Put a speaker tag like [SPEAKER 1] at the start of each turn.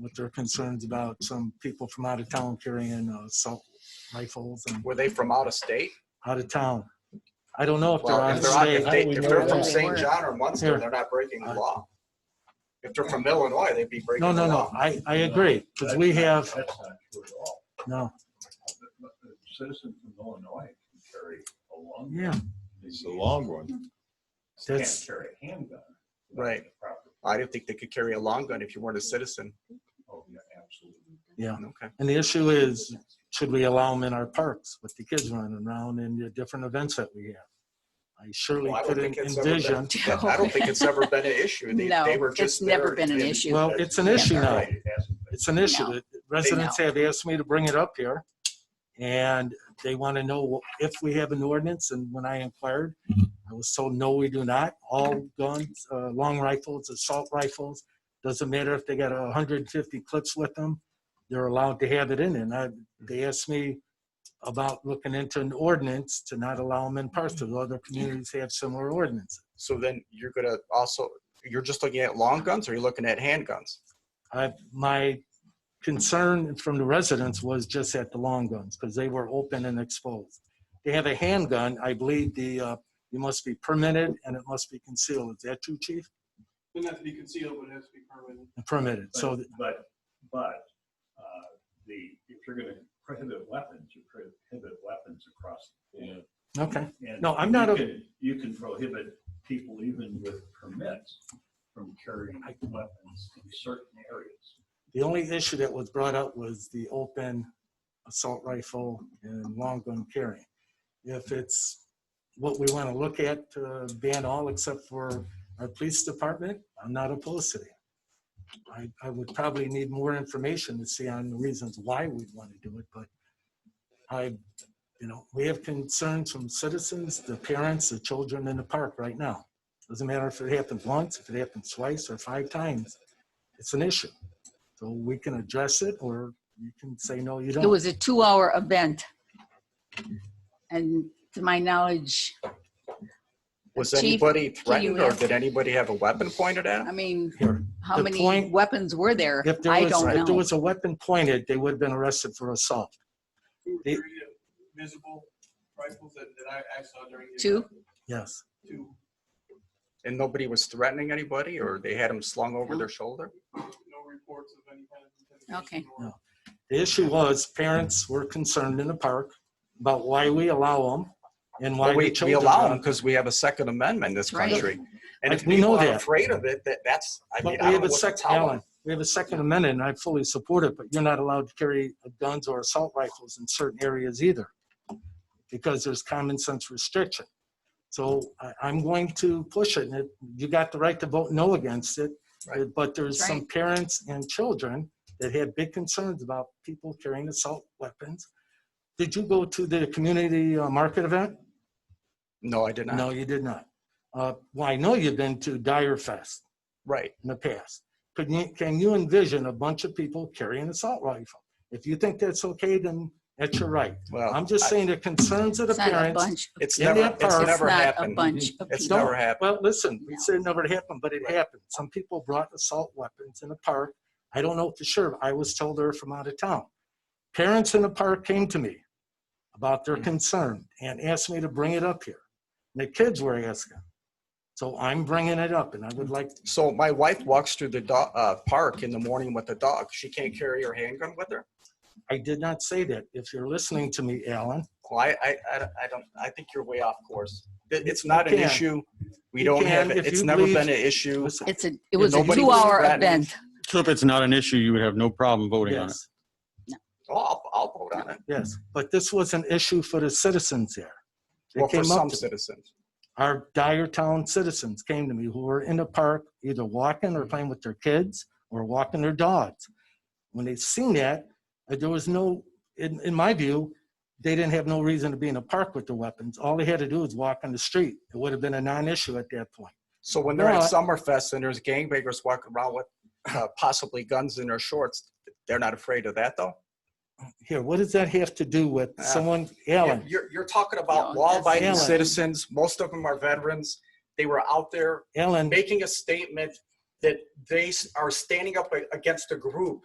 [SPEAKER 1] with uh, their concerns about some people from out of town carrying uh, assault rifles and
[SPEAKER 2] Were they from out of state?
[SPEAKER 1] out of town. I don't know if they're
[SPEAKER 2] Well,
[SPEAKER 1] out
[SPEAKER 2] if
[SPEAKER 1] of
[SPEAKER 2] they're, out- if
[SPEAKER 1] state.
[SPEAKER 2] they,
[SPEAKER 3] How do we
[SPEAKER 2] if
[SPEAKER 3] know
[SPEAKER 2] they're
[SPEAKER 3] that?
[SPEAKER 2] from
[SPEAKER 3] They
[SPEAKER 2] St.
[SPEAKER 3] weren't.
[SPEAKER 2] John or Munster,
[SPEAKER 1] Here.
[SPEAKER 2] they're not breaking the
[SPEAKER 1] Uh,
[SPEAKER 2] law. If they're from Illinois, they'd be breaking
[SPEAKER 1] No,
[SPEAKER 2] the
[SPEAKER 1] no, no,
[SPEAKER 2] law.
[SPEAKER 1] I, I agree, because we have,
[SPEAKER 4] That's not true at all.
[SPEAKER 1] no,
[SPEAKER 4] A Citizen from Illinois can carry a long.
[SPEAKER 1] yeah,
[SPEAKER 5] It's the long one.
[SPEAKER 4] Can't
[SPEAKER 1] That's-
[SPEAKER 4] carry a handgun. without
[SPEAKER 2] Right.
[SPEAKER 4] the proper-
[SPEAKER 2] I didn't think they could carry a long gun if you weren't a citizen.
[SPEAKER 4] Oh, yeah, absolutely.
[SPEAKER 2] Okay.
[SPEAKER 1] and the issue is, should we allow them in our parks with the kids running around and the different events that we have? I surely
[SPEAKER 2] Well, I don't
[SPEAKER 1] couldn't
[SPEAKER 2] think it's ever been-
[SPEAKER 1] envision,
[SPEAKER 2] That- I don't think it's ever been an issue. They,
[SPEAKER 3] Oh. No,
[SPEAKER 2] they were
[SPEAKER 3] it's
[SPEAKER 2] just
[SPEAKER 3] never
[SPEAKER 2] there
[SPEAKER 3] been an
[SPEAKER 2] in-
[SPEAKER 3] issue.
[SPEAKER 1] well, it's an issue
[SPEAKER 2] Yeah,
[SPEAKER 1] now.
[SPEAKER 2] right.
[SPEAKER 4] It hasn't been.
[SPEAKER 1] It's an issue
[SPEAKER 3] No.
[SPEAKER 1] that residents have asked me to bring it up here. And they want to know if we have an ordinance. And when I inquired, I was told, no, we do not. All guns, uh, long rifles, assault rifles, doesn't matter if they got a hundred and fifty clips with them, they're allowed to have it in. And I, they asked me about looking into an ordinance to not allow them in parks. Because other communities have similar ordinances.
[SPEAKER 2] So then you're gonna also, you're just looking at long guns or you're looking at handguns?
[SPEAKER 1] I, my concern from the residents was just at the long guns because they were open and exposed. They have a handgun, I believe the, uh, you must be permitted and it must be concealed. Is that true, chief?
[SPEAKER 6] Doesn't have to be concealed, but it has to be permitted.
[SPEAKER 1] Permitted, so,
[SPEAKER 4] But, but, but, uh, the, if you're gonna prohibit weapons, you prohibit weapons across. the board.
[SPEAKER 1] okay,
[SPEAKER 4] And
[SPEAKER 1] No, I'm not
[SPEAKER 4] you
[SPEAKER 1] a-
[SPEAKER 4] can- You can prohibit people even with permits from carrying weapons in certain areas.
[SPEAKER 1] the only issue that was brought up was the open assault rifle and long gun carrying. If it's what we want to look at, to ban all except for our police department, I'm not opposed to that. I, I would probably need more information to see on the reasons why we'd want to do it, but I, you know, we have concerns from citizens, the parents, the children in the park right now. Doesn't matter if it happens once, if it happens twice or five times, it's an issue. So we can address it or you can say, no, you
[SPEAKER 3] It
[SPEAKER 1] don't.
[SPEAKER 3] was a two-hour event. And to my knowledge,
[SPEAKER 2] Was
[SPEAKER 3] Chief,
[SPEAKER 2] anybody threatened or
[SPEAKER 3] answer?
[SPEAKER 2] did anybody have a weapon pointed at 'em?
[SPEAKER 3] I mean,
[SPEAKER 1] Here.
[SPEAKER 3] how
[SPEAKER 1] The
[SPEAKER 3] many
[SPEAKER 1] point-
[SPEAKER 3] weapons were there?
[SPEAKER 1] If there
[SPEAKER 3] I
[SPEAKER 1] was, if
[SPEAKER 3] don't
[SPEAKER 1] there
[SPEAKER 3] know.
[SPEAKER 1] was a weapon pointed, they would have been arrested for assault.
[SPEAKER 6] Two or
[SPEAKER 1] It-
[SPEAKER 6] three visible rifles that, that I, I saw during. the
[SPEAKER 3] Two?
[SPEAKER 6] event.
[SPEAKER 1] Yes.
[SPEAKER 6] Two.
[SPEAKER 2] And nobody was threatening anybody or they had them slung over
[SPEAKER 3] No.
[SPEAKER 2] their shoulder?
[SPEAKER 6] No reports of any kind of intimidation.
[SPEAKER 3] Okay.
[SPEAKER 6] or-
[SPEAKER 1] No. The issue was parents were concerned in the park about why we allow them and why
[SPEAKER 2] Well,
[SPEAKER 1] the
[SPEAKER 2] we, we
[SPEAKER 1] children.
[SPEAKER 2] allow
[SPEAKER 1] are-
[SPEAKER 2] them because we have a Second Amendment in this
[SPEAKER 3] Right.
[SPEAKER 2] country. And if
[SPEAKER 1] We know
[SPEAKER 2] people are
[SPEAKER 1] that.
[SPEAKER 2] afraid of it, that, that's, I mean,
[SPEAKER 1] But
[SPEAKER 2] I
[SPEAKER 1] we
[SPEAKER 2] don't
[SPEAKER 1] have
[SPEAKER 2] know
[SPEAKER 1] a
[SPEAKER 2] what to
[SPEAKER 1] second,
[SPEAKER 2] tell
[SPEAKER 1] Alan,
[SPEAKER 2] them.
[SPEAKER 1] we have a second amendment and I fully support it, but you're not allowed to carry guns or assault rifles in certain areas either. Because there's common sense restriction. So I, I'm going to push it and it- you got the right to vote no against it.
[SPEAKER 2] Right.
[SPEAKER 1] But there's
[SPEAKER 3] That's
[SPEAKER 1] some parents and children that have big concerns about people carrying assault weapons. Did you go to the community uh, market event?
[SPEAKER 2] No, I did
[SPEAKER 1] No,
[SPEAKER 2] not.
[SPEAKER 1] you did not. Uh, well, I know you've been to Dyer Fest
[SPEAKER 2] Right.
[SPEAKER 1] in the past. Could you, can you envision a bunch of people carrying an assault rifle? If you think that's okay, then that's your right.
[SPEAKER 2] Well,
[SPEAKER 1] I'm just
[SPEAKER 2] Oh, I-
[SPEAKER 1] saying the concerns of the
[SPEAKER 3] It's not a
[SPEAKER 1] parents.
[SPEAKER 3] bunch. of-
[SPEAKER 2] It's
[SPEAKER 1] in
[SPEAKER 2] never,
[SPEAKER 1] that
[SPEAKER 2] it's
[SPEAKER 1] park-
[SPEAKER 3] It's
[SPEAKER 2] never
[SPEAKER 3] not a
[SPEAKER 2] happened.
[SPEAKER 3] bunch of
[SPEAKER 2] It's
[SPEAKER 3] people.
[SPEAKER 2] never happened.
[SPEAKER 1] Well, listen, we
[SPEAKER 3] No.
[SPEAKER 1] said it never happened, but it happened. Some people brought assault weapons in the park. I don't know for sure. I was told they're from out of town. Parents in the park came to me about their concern and asked me to bring it up here. And the kids were asking. So I'm bringing it up and I would like,
[SPEAKER 2] So my wife walks through the do- uh, park in the morning with the dog. She can't carry her handgun with her.
[SPEAKER 1] I did not say that. If you're listening to me, Alan,
[SPEAKER 2] Well, I, I, I, I don't, I think you're way off course. It- It's not
[SPEAKER 1] You
[SPEAKER 2] an
[SPEAKER 1] can.
[SPEAKER 2] issue. We
[SPEAKER 1] You
[SPEAKER 2] don't have,
[SPEAKER 1] can
[SPEAKER 2] it.
[SPEAKER 1] if
[SPEAKER 2] it's
[SPEAKER 1] you
[SPEAKER 2] never
[SPEAKER 1] believe-
[SPEAKER 2] been an issue.
[SPEAKER 1] listen.
[SPEAKER 3] It's a, it was a
[SPEAKER 2] nobody was
[SPEAKER 3] two-hour
[SPEAKER 2] threatened.
[SPEAKER 3] event.
[SPEAKER 5] So if it's not an issue, you would have no problem voting on it.
[SPEAKER 1] Yes,
[SPEAKER 2] Oh, I'll, I'll vote on it.
[SPEAKER 1] yes, but this was an issue for the citizens there. They
[SPEAKER 2] Well, for
[SPEAKER 1] came up
[SPEAKER 2] some
[SPEAKER 1] to,
[SPEAKER 2] citizens.
[SPEAKER 1] our Dyer Town citizens came to me who were in the park, either walking
[SPEAKER 2] Mm.
[SPEAKER 1] or playing with their kids or walking their dogs. When they seen that, uh, there was no, in, in my view, they didn't have no reason to be in the park with their weapons. All they had to do was walk on the street. It would have been a non-issue at that point.
[SPEAKER 2] So when they're
[SPEAKER 1] No, I-
[SPEAKER 2] at Summerfest and there's gangbangers walking around with uh, possibly guns in their shorts, they're not afraid of that though.
[SPEAKER 1] Here, what does that have to do with
[SPEAKER 2] Ah.
[SPEAKER 1] someone, Alan?
[SPEAKER 2] You're, you're talking about
[SPEAKER 3] No,
[SPEAKER 2] law-abiding
[SPEAKER 1] that's-
[SPEAKER 2] citizens. Most of them are veterans. They were out there
[SPEAKER 1] Alan,
[SPEAKER 2] making a statement that they s- are standing up a- against a group